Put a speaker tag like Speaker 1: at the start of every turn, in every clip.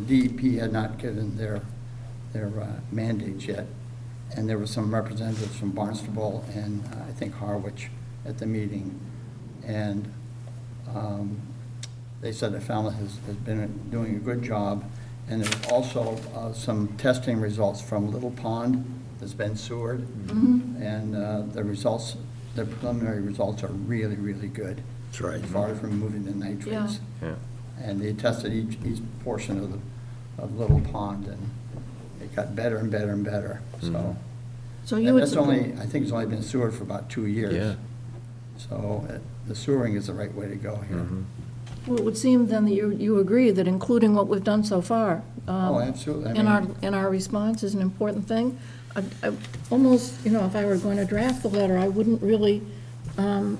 Speaker 1: The DEP E had not given their, their uh, mandates yet, and there were some representatives from Barnstable and uh, I think Harwich at the meeting. And um, they said the fella has, has been doing a good job. And there's also uh, some testing results from Little Pond that's been sewered.
Speaker 2: Mm-hmm.
Speaker 1: And uh, the results, the preliminary results are really, really good.
Speaker 3: That's right.
Speaker 1: As far as removing the nitrates.
Speaker 4: Yeah.
Speaker 1: And they tested each, each portion of the, of Little Pond, and it got better and better and better, so.
Speaker 3: Mm-hmm.
Speaker 2: So you
Speaker 1: And
Speaker 2: would
Speaker 1: that's only,
Speaker 2: support,
Speaker 1: I think it's only been sewered for about two years.
Speaker 4: Yeah.
Speaker 1: So uh, the sewering is the right way to go here.
Speaker 4: Mm-hmm.
Speaker 3: Mm-hmm.
Speaker 2: well, it would seem then that you, you agree that including what we've done so far. um,
Speaker 1: Oh, absolutely. I
Speaker 2: In our,
Speaker 1: mean-
Speaker 2: in our response is an important thing. I- I Almost, you know, if I were going to draft the letter, I wouldn't really um,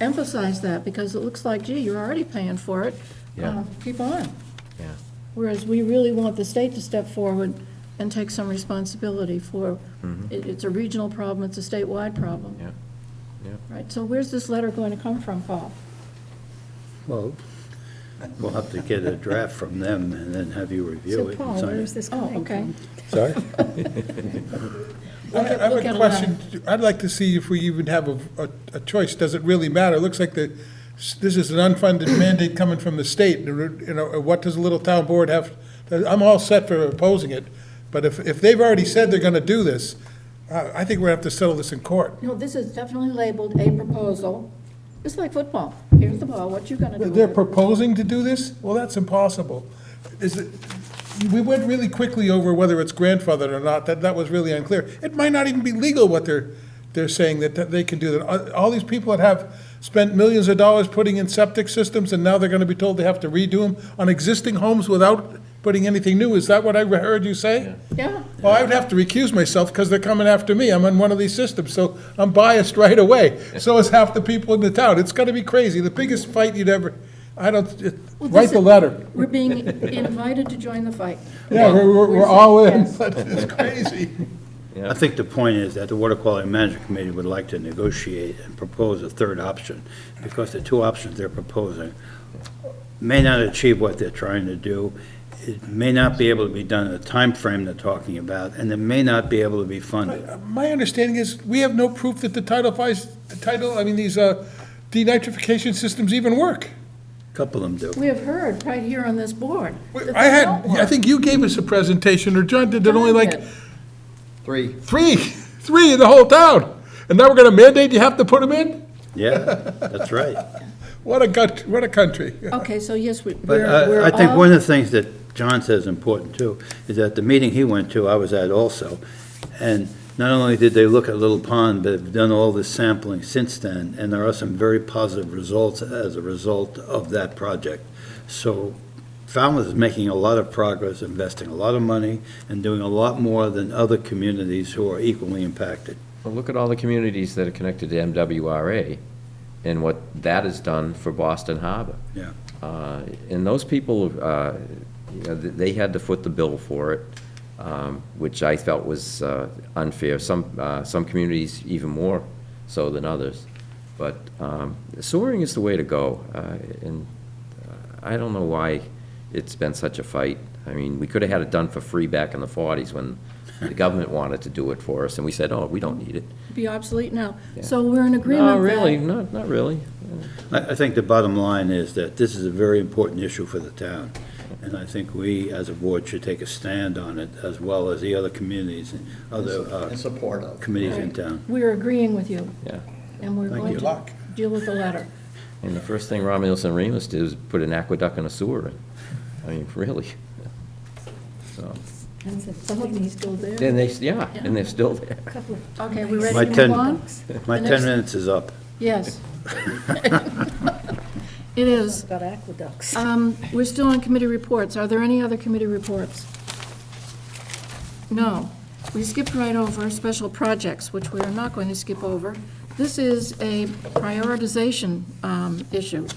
Speaker 2: emphasize that, because it looks like, gee, you're already paying for it.
Speaker 4: Yeah.
Speaker 2: Um, Keep on.
Speaker 4: Yeah.
Speaker 2: Whereas we really want the state to step forward and take some responsibility for, it- it's a regional problem, it's a statewide problem.
Speaker 4: Mm-hmm. Yeah. Yeah.
Speaker 2: Right, so where's this letter going to come from, Paul?
Speaker 3: Well, we'll have to get a draft from them and then have you review
Speaker 5: So
Speaker 3: it.
Speaker 5: Paul,
Speaker 3: and sign
Speaker 5: where
Speaker 3: it.
Speaker 5: is this
Speaker 2: Oh,
Speaker 5: coming
Speaker 2: okay.
Speaker 5: from?
Speaker 3: Sorry?
Speaker 6: I
Speaker 2: Look at-
Speaker 6: I have
Speaker 2: look at
Speaker 6: a
Speaker 2: a
Speaker 6: question. I'd like to see if we even have a, a- a choice. Does it really matter? It looks like the, this is an unfunded mandate coming from the state. You know, what does a little town board have? I'm all set for opposing it, but if, if they've already said they're gonna do this, I, I think we're gonna have to settle this in court.
Speaker 2: No, this is definitely labeled a proposal. It's like football. Here's the ball, what you gonna do? with
Speaker 6: They're
Speaker 2: it?
Speaker 6: proposing to do this? Well, that's impossible. Is it, we went really quickly over whether it's grandfathered or not, that, that was really unclear. It might not even be legal what they're, they're saying that, that they can do that. All- All these people that have spent millions of dollars putting in septic systems and now they're gonna be told they have to redo them on existing homes without putting anything new, is that what I heard you say?
Speaker 2: Yeah,
Speaker 6: Well, I would have to recuse myself because they're coming after me. I'm on one of these systems, so I'm biased right away. So is half the people in the town. It's going to be crazy. The biggest fight you'd ever, I don't, it-
Speaker 2: Well,
Speaker 6: write
Speaker 2: this
Speaker 6: the
Speaker 2: is-
Speaker 6: letter.
Speaker 2: we're being invited to join the fight.
Speaker 6: Yeah, we're, we're-
Speaker 2: We're
Speaker 6: we're all in.
Speaker 2: saying
Speaker 6: It's crazy.
Speaker 3: I think the point is that the Water Quality Management Committee would like to negotiate and propose a third option, because the two options they're proposing may not achieve what they're trying to do, it may not be able to be done in the time frame they're talking about, and it may not be able to be funded.
Speaker 6: My understanding is, we have no proof that the Title Five, the title, I mean, these uh, denitrification systems even work.
Speaker 3: A Couple of them do.
Speaker 2: We have heard right here on this board. that
Speaker 6: I
Speaker 2: they
Speaker 6: had,
Speaker 2: don't
Speaker 6: I
Speaker 2: work.
Speaker 6: think you gave us a presentation, or John did, that only like
Speaker 2: Darn it.
Speaker 1: Three,
Speaker 6: three, three in the whole town. And now we're going to mandate you have to put them in?
Speaker 3: Yeah, that's right.
Speaker 6: What a gut, what a country.
Speaker 2: Okay, so yes, we-
Speaker 3: But
Speaker 2: we're,
Speaker 3: uh,
Speaker 2: we're
Speaker 3: I think
Speaker 2: all-
Speaker 3: one of the things that John says is important too, is that the meeting he went to, I was at also, and not only did they look at Little Pond, but have done all this sampling since then, and there are some very positive results as a result of that project. So Falmouth is making a lot of progress, investing a lot of money, and doing a lot more than other communities who are equally impacted.
Speaker 4: Well, look at all the communities that are connected to MWRA and what that has done for Boston Harbor.
Speaker 3: Yeah.
Speaker 4: Uh, And those people, uh, you know, th- they had to foot the bill for it, um, which I felt was uh, unfair. Some, uh, some communities even more so than others. But um, sewering is the way to go. uh, And uh, I don't know why it's been such a fight. I mean, we could have had it done for free back in the 40s when the government wanted to do it for us, and we said, oh, we don't need it.
Speaker 2: be obsolete now.
Speaker 4: Yeah.
Speaker 2: So we're in agreement
Speaker 4: No,
Speaker 2: that.
Speaker 4: really, not, not really.
Speaker 3: I, I think the bottom line is that this is a very important issue for the town, and I think we, as a board, should take a stand on it, as well as the other communities and other uh,
Speaker 1: in support of.
Speaker 3: committees in town.
Speaker 2: We're agreeing with you,
Speaker 4: Yeah.
Speaker 2: and we're
Speaker 3: Thank
Speaker 2: going
Speaker 3: you.
Speaker 2: to deal with the letter.
Speaker 4: And the first thing Romulus and Remus did was put an aqueduct and a sewer in. I mean, really. So,
Speaker 5: And the
Speaker 2: So hopefully he's still there.
Speaker 4: and they, yeah, and they're still there.
Speaker 5: couple of
Speaker 2: Okay, we
Speaker 3: My
Speaker 2: ready to
Speaker 3: ten-
Speaker 2: move on?
Speaker 3: My
Speaker 2: The
Speaker 3: 10
Speaker 2: next-
Speaker 3: minutes is up.
Speaker 2: Yes. It is.
Speaker 5: got aqueducts.
Speaker 2: Um, We're still on committee reports. Are there any other committee reports? No. We skipped right over special projects, which we are not going to skip over. This is a prioritization um, issue.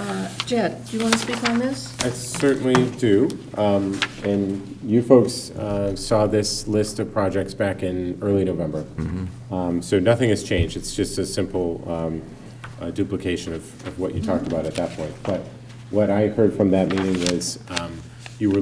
Speaker 2: Uh, Jed, do you want to speak on this?
Speaker 7: I certainly do. Um, And you folks uh, saw this list of projects back in early November. Um, So nothing has changed. It's just a simple um, uh, duplication of of what you talked about at that point. But what I heard from that meeting was um,